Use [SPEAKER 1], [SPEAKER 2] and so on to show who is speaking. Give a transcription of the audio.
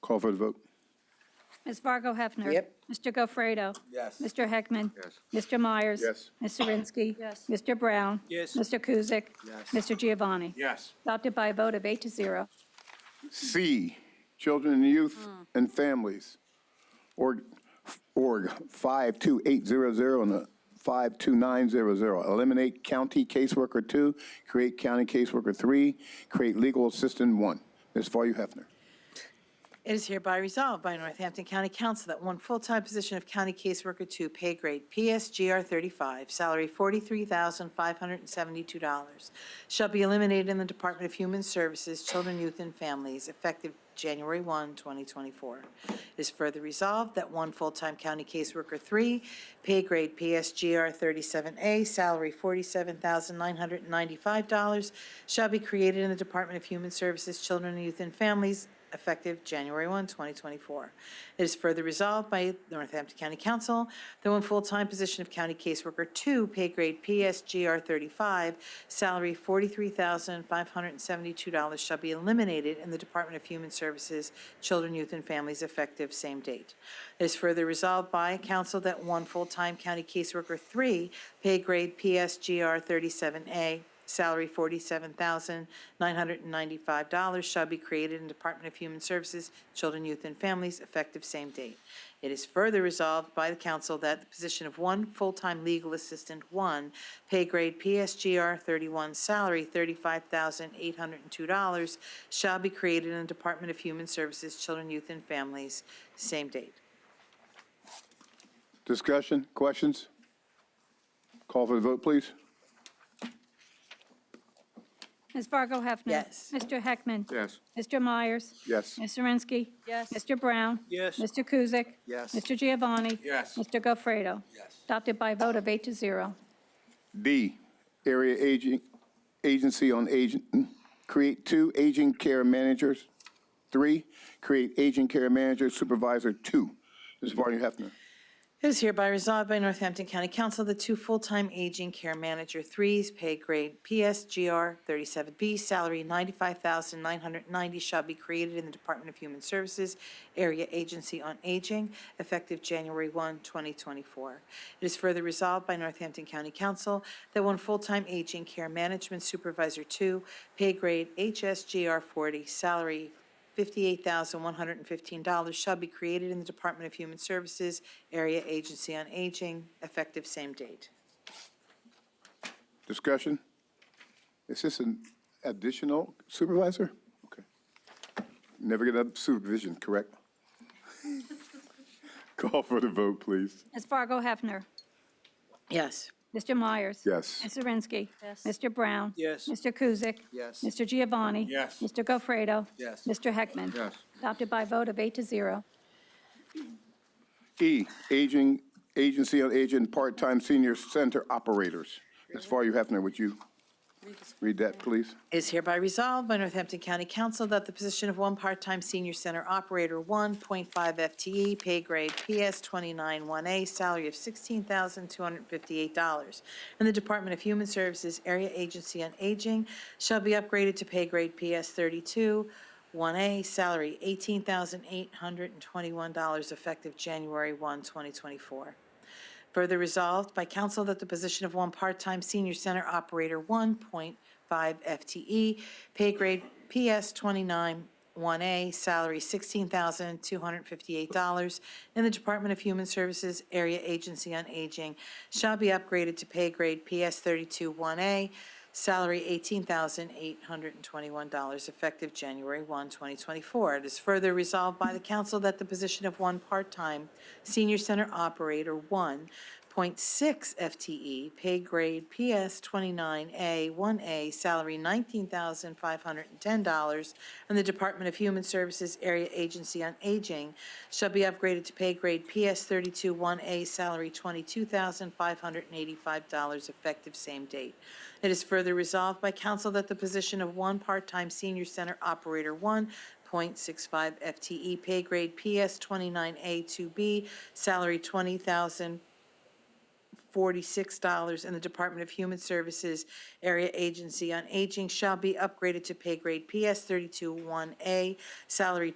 [SPEAKER 1] Call for the vote.
[SPEAKER 2] Ms. Fargo Hefner.
[SPEAKER 3] Yep.
[SPEAKER 2] Mr. Gofredo. Yes. Mr. Heckman. Yes. Mr. Myers.
[SPEAKER 1] Yes.
[SPEAKER 2] Ms. Zirinsky. Yes. Mr. Brown.
[SPEAKER 4] Yes.
[SPEAKER 2] Mr. Kuzic. Yes. Mr. Giovanni.
[SPEAKER 1] Yes.
[SPEAKER 2] Adopted by a vote of eight to zero.
[SPEAKER 1] C, Children and Youth and Families, org, org 52800 and uh, 52900. Eliminate County Caseworker 2, create County Caseworker 3, create Legal Assistant 1. Ms. Fargo Hefner.
[SPEAKER 5] It is hereby resolved by Northampton County Council that one full-time position of County Caseworker 2, pay grade PSGR 35, salary $43,572, shall be eliminated in the Department of Human Services, Children, Youth, and Families, effective January 1, 2024. It is further resolved that one full-time County Caseworker 3, pay grade PSGR 37A, salary $47,995, shall be created in the Department of Human Services, Children, Youth, and Families, effective January 1, 2024. It is further resolved by the Northampton County Council that one full-time position of County Caseworker 2, pay grade PSGR 35, salary $43,572 shall be eliminated in the Department of Human Services, Children, Youth, and Families effective same date. It is further resolved by council that one full-time County Caseworker 3, pay grade PSGR 37A, Salary $47,995 shall be created in Department of Human Services, Children, Youth, and Families, effective same date. It is further resolved by the council that the position of one full-time legal assistant, one, pay grade PSGR 31, salary $35,802, shall be created in the Department of Human Services, Children, Youth, and Families, same date.
[SPEAKER 1] Discussion, questions? Call for the vote, please.
[SPEAKER 2] Ms. Fargo Hefner.
[SPEAKER 5] Yes.
[SPEAKER 2] Mr. Heckman.
[SPEAKER 1] Yes.
[SPEAKER 2] Mr. Myers.
[SPEAKER 1] Yes.
[SPEAKER 2] Ms. Zirinsky. Yes. Mr. Brown.
[SPEAKER 4] Yes.
[SPEAKER 2] Mr. Kuzic.
[SPEAKER 4] Yes.
[SPEAKER 2] Mr. Giovanni.
[SPEAKER 4] Yes.
[SPEAKER 2] Mr. Gofredo.
[SPEAKER 4] Yes.
[SPEAKER 2] Adopted by a vote of eight to zero.
[SPEAKER 1] D, Area Aging, Agency on Aging, create two aging care managers. Three, create aging care manager supervisor two. Ms. Barney Hefner.
[SPEAKER 5] It is hereby resolved by Northampton County Council that two full-time aging care manager threes, pay grade PSGR 37B, salary 95990 shall be created in the Department of Human Services Area Agency on Aging, effective January 1, 2024. It is further resolved by Northampton County Council that one full-time aging care management supervisor two, pay grade HSGR 40, salary $58,115 shall be created in the Department of Human Services Area Agency on Aging, effective same date.
[SPEAKER 1] Discussion? Is this an additional supervisor? Okay. Never get a supervision, correct? Call for the vote, please.
[SPEAKER 2] Ms. Fargo Hefner.
[SPEAKER 5] Yes.
[SPEAKER 2] Mr. Myers.
[SPEAKER 1] Yes.
[SPEAKER 2] Ms. Zirinsky. Yes. Mr. Brown.
[SPEAKER 4] Yes.
[SPEAKER 2] Mr. Kuzic.
[SPEAKER 4] Yes.
[SPEAKER 2] Mr. Giovanni.
[SPEAKER 4] Yes.
[SPEAKER 2] Mr. Gofredo.
[SPEAKER 4] Yes.
[SPEAKER 2] Mr. Heckman.
[SPEAKER 1] Yes.
[SPEAKER 2] Adopted by a vote of eight to zero.
[SPEAKER 1] E, Aging, Agency on Aging, Part-Time Senior Center Operators. Ms. Farley Hefner, would you read that, please?
[SPEAKER 5] It is hereby resolved by Northampton County Council that the position of one part-time senior center operator, 1.5 FTE, E, pay grade PS 291A, salary of $16,258, and the Department of Human Services Area Agency on Aging shall be upgraded to pay grade PS 32, 1A, salary $18,821, effective January 1, 2024. Further resolved by council that the position of one part-time senior center operator, 1.5 FTE, E, pay grade PS 29 1A, salary $16,258, in the Department of Human Services Area Agency on Aging shall be upgraded to pay grade PS 32 1A, Salary $18,821, effective January 1, 2024. It is further resolved by the council that the position of one part-time senior center operator, 1.6 FTE, E, pay grade PS 29A, 1A, salary $19,510, and the Department of Human Services Area Agency on Aging shall be upgraded to pay grade PS 32 1A, salary $22,585, effective same date. It is further resolved by council that the position of one part-time senior center operator one, 0.65 FTE, E pay grade PS 29A 2B, salary $20,046, and the Department of Human Services Area Agency on Aging shall be upgraded to pay grade PS 32 1A, salary